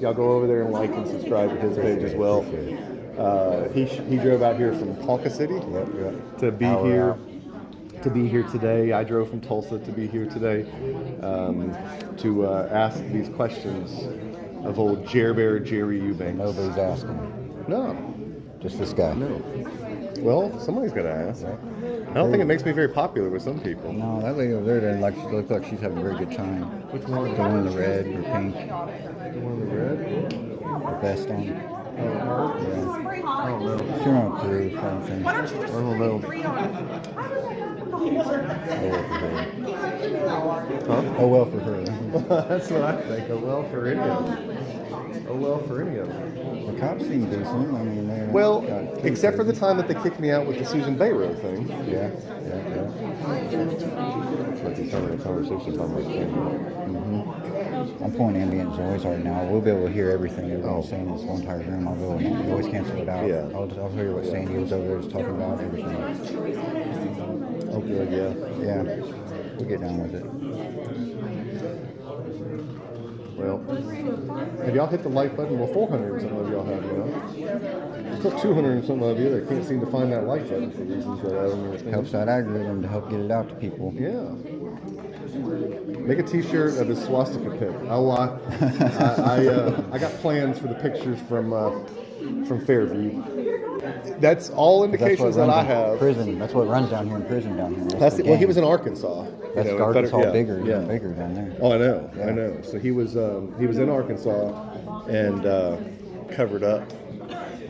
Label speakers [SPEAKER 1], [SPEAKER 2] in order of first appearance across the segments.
[SPEAKER 1] Y'all go over there and like and subscribe to his page as well. Uh, he, sh- he drove out here from Ponca City
[SPEAKER 2] Yep, yep.
[SPEAKER 1] to be
[SPEAKER 2] Hour
[SPEAKER 1] here
[SPEAKER 2] out.
[SPEAKER 1] to be here today. I drove from Tulsa to be here today um, to uh, ask these questions of old Jer Bear Jerry Eubanks.
[SPEAKER 2] Nobody's asking.
[SPEAKER 1] No,
[SPEAKER 2] Just this guy. No,
[SPEAKER 1] Well, somebody's got to ask. I don't think it makes me very popular with some people.
[SPEAKER 2] that lady over there doesn't like, she looks like she's having a very good time. Which one? The one in the red or pink. The vest on.
[SPEAKER 3] Spring holiday.
[SPEAKER 2] She went through, so I don't think.
[SPEAKER 3] Why don't you just
[SPEAKER 1] I don't know.
[SPEAKER 3] spring three on us?
[SPEAKER 2] Oh, well for her. Oh, well for her.
[SPEAKER 1] That's what I think. A well for any of them. A well for any of them.
[SPEAKER 2] The cops seem decent. I mean, they're.
[SPEAKER 1] Well,
[SPEAKER 2] got two
[SPEAKER 1] except for the
[SPEAKER 2] things.
[SPEAKER 1] time that they kicked me out with the Susan Bayrow thing.
[SPEAKER 2] Yeah, yeah, yeah.
[SPEAKER 1] Like he's having a conversation on my camera.
[SPEAKER 2] Mm-hmm. I'm pulling ambient noise right now. We'll be able to hear everything everyone's saying in this whole entire room. I'll be able to always cancel it out.
[SPEAKER 1] Oh. Yeah.
[SPEAKER 2] I'll, I'll hear what Sandy was over there was talking about. Everything.
[SPEAKER 1] Oh, good, yeah.
[SPEAKER 2] Yeah, we'll get down with it.
[SPEAKER 1] Well, have y'all hit the like button? Well, 400 and something of y'all have, you know? There's still 200 and something of you that can't seem to find that like button for reasons that I don't understand.
[SPEAKER 2] Helps that algorithm to help get it out to people.
[SPEAKER 1] Yeah. Make a T-shirt of his swastika pic. I'll, uh, I, I, uh, I got plans for the pictures from uh, from Fairview. That's all
[SPEAKER 2] That's what
[SPEAKER 1] indications
[SPEAKER 2] runs
[SPEAKER 1] that I
[SPEAKER 2] in
[SPEAKER 1] have.
[SPEAKER 2] Prison. That's what runs down here in prison down here. That's
[SPEAKER 1] That's
[SPEAKER 2] the
[SPEAKER 1] it. Well, he
[SPEAKER 2] gang.
[SPEAKER 1] was in Arkansas. you
[SPEAKER 2] That's
[SPEAKER 1] know, in
[SPEAKER 2] Arkansas
[SPEAKER 1] Feder- yeah,
[SPEAKER 2] bigger,
[SPEAKER 1] Yeah.
[SPEAKER 2] bigger down there.
[SPEAKER 1] Oh, I know. I
[SPEAKER 2] Yeah.
[SPEAKER 1] know. So he was um, he was in Arkansas and uh, covered up.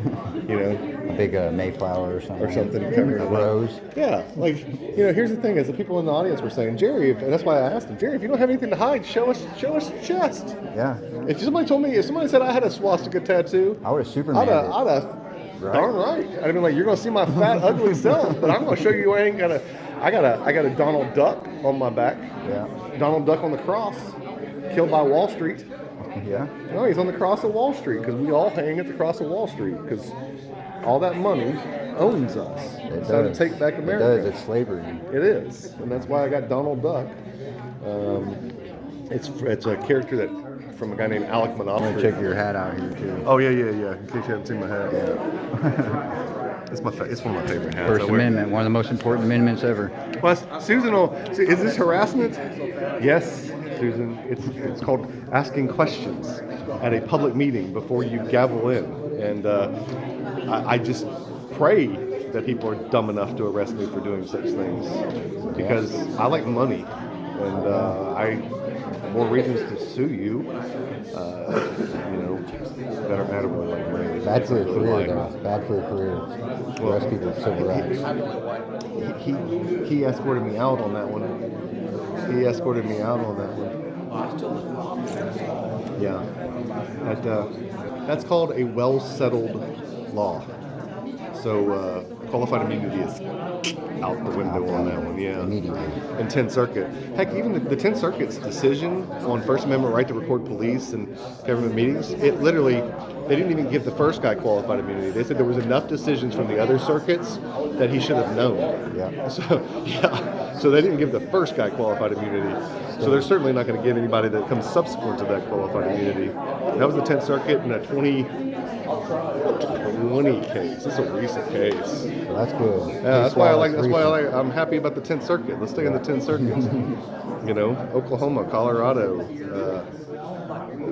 [SPEAKER 1] You know,
[SPEAKER 2] A big uh, Mayflower or something.
[SPEAKER 1] or something covered
[SPEAKER 2] A
[SPEAKER 1] up.
[SPEAKER 2] rose.
[SPEAKER 1] Yeah, like you know, here's the thing: is the people in the audience were saying, Jerry, if, and that's why I asked him, Jerry, if you don't have anything to hide, show us, show us your chest.
[SPEAKER 2] Yeah.
[SPEAKER 1] If somebody told me, if somebody said I had a swastika tattoo,
[SPEAKER 2] I would have
[SPEAKER 1] I'd
[SPEAKER 2] Superman.
[SPEAKER 1] have,
[SPEAKER 2] it.
[SPEAKER 1] I'd have,
[SPEAKER 2] Right.
[SPEAKER 1] darn right. I'd have been like, you're gonna see my fat, ugly self, but I'm gonna show you I ain't got a, I got a, I got a Donald Duck on my back,
[SPEAKER 2] Yeah.
[SPEAKER 1] Donald Duck on the cross, killed by Wall Street.
[SPEAKER 2] Yeah.
[SPEAKER 1] No, he's on the cross of Wall Street because we all hang at the cross of Wall Street because all that money owns us. it's time to take back
[SPEAKER 2] It does.
[SPEAKER 1] America.
[SPEAKER 2] It's slavery.
[SPEAKER 1] It is, and that's why I got Donald Duck. Um, it's it's a character that from a guy named Alec
[SPEAKER 2] I'm gonna
[SPEAKER 1] Monopoly.
[SPEAKER 2] check your hat out here too.
[SPEAKER 1] Oh yeah, yeah, yeah. In case you haven't seen my hat, yeah. it's my fa- it's one of my favorite hats. I
[SPEAKER 2] First
[SPEAKER 1] wear-
[SPEAKER 2] Amendment, one of the most important amendments ever.
[SPEAKER 1] Well, Susan will. Su- Is this harassment? Yes, Susan. It's it's called asking questions at a public meeting before you gavel in, and uh, I, I just pray that people are dumb enough to arrest me for doing such things because I like money, and uh, I more reasons to sue you. Uh, you know, better matter what I like money.
[SPEAKER 2] Bad for your
[SPEAKER 1] Really
[SPEAKER 2] career,
[SPEAKER 1] like-
[SPEAKER 2] though. Bad for your career. The rest of people are civil rights.
[SPEAKER 1] he he escorted me out on that one. He escorted me out on that one. Yeah, that uh, that's called a well settled law. So uh, qualified immunity is out the window on that one. Yeah.
[SPEAKER 2] Immediately.
[SPEAKER 1] And 10th Circuit. Heck, even the, the 10th Circuit's decision on First Amendment right to record police and government meetings, it literally, they didn't even give the first guy qualified immunity. They said there was enough decisions from the other circuits that he should have known.
[SPEAKER 2] Yeah.
[SPEAKER 1] So, yeah. So they didn't give the first guy qualified immunity. So they're certainly not going to give anybody that comes subsequent to that qualified immunity. That was the 10th Circuit in a 20, 20 case. It's a recent case.
[SPEAKER 2] So that's cool.
[SPEAKER 1] Yeah, that's why I like. That's why I like. I'm happy about the 10th Circuit. Let's stay in the 10th Circuit. you know, Oklahoma, Colorado. Uh,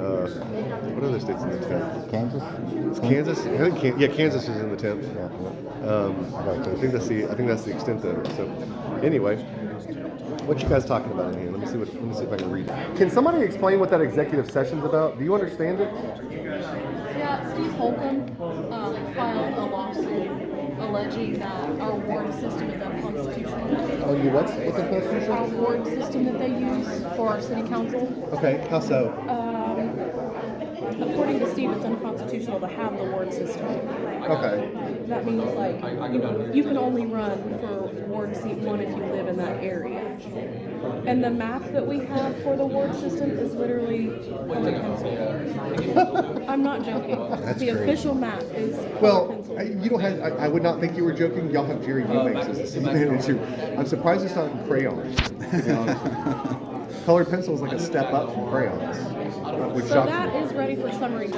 [SPEAKER 1] uh, what other states in the 10th?
[SPEAKER 2] Kansas?
[SPEAKER 1] It's Kansas. I think Kan- yeah, Kansas is in the 10th.
[SPEAKER 2] Yeah.
[SPEAKER 1] Um, I think that's the. I think that's the extent of it. So, anyway, what you guys talking about in here? Let me see. What, let me see if I can read. it. Can somebody explain what that executive session's about? Do you understand it?
[SPEAKER 4] Yeah, Steve Holcomb um, filed a lawsuit alleging that our ward system is unconstitutional.
[SPEAKER 1] Oh, you what's what's the
[SPEAKER 4] Our
[SPEAKER 1] constitution?
[SPEAKER 4] ward system that they use for our city council,
[SPEAKER 1] Okay, how so?
[SPEAKER 4] um, according to Steve, it's unconstitutional to have the ward system.
[SPEAKER 1] Okay,
[SPEAKER 4] That means like, you- you can only run for ward seat one if you live in that area. And the map that we have for the ward system is literally colored pencil. I'm not joking. The
[SPEAKER 2] crazy.
[SPEAKER 4] official map is colored
[SPEAKER 1] Well,
[SPEAKER 4] pencil.
[SPEAKER 1] I- you don't have. I, I would not think you were joking. Y'all have Jerry Eubanks as the city manager. I'm surprised it's not in crayon. to be honest with you. colored pencil is like a step up from crayons, uh, which
[SPEAKER 4] So
[SPEAKER 1] Dr.
[SPEAKER 4] that is ready for summary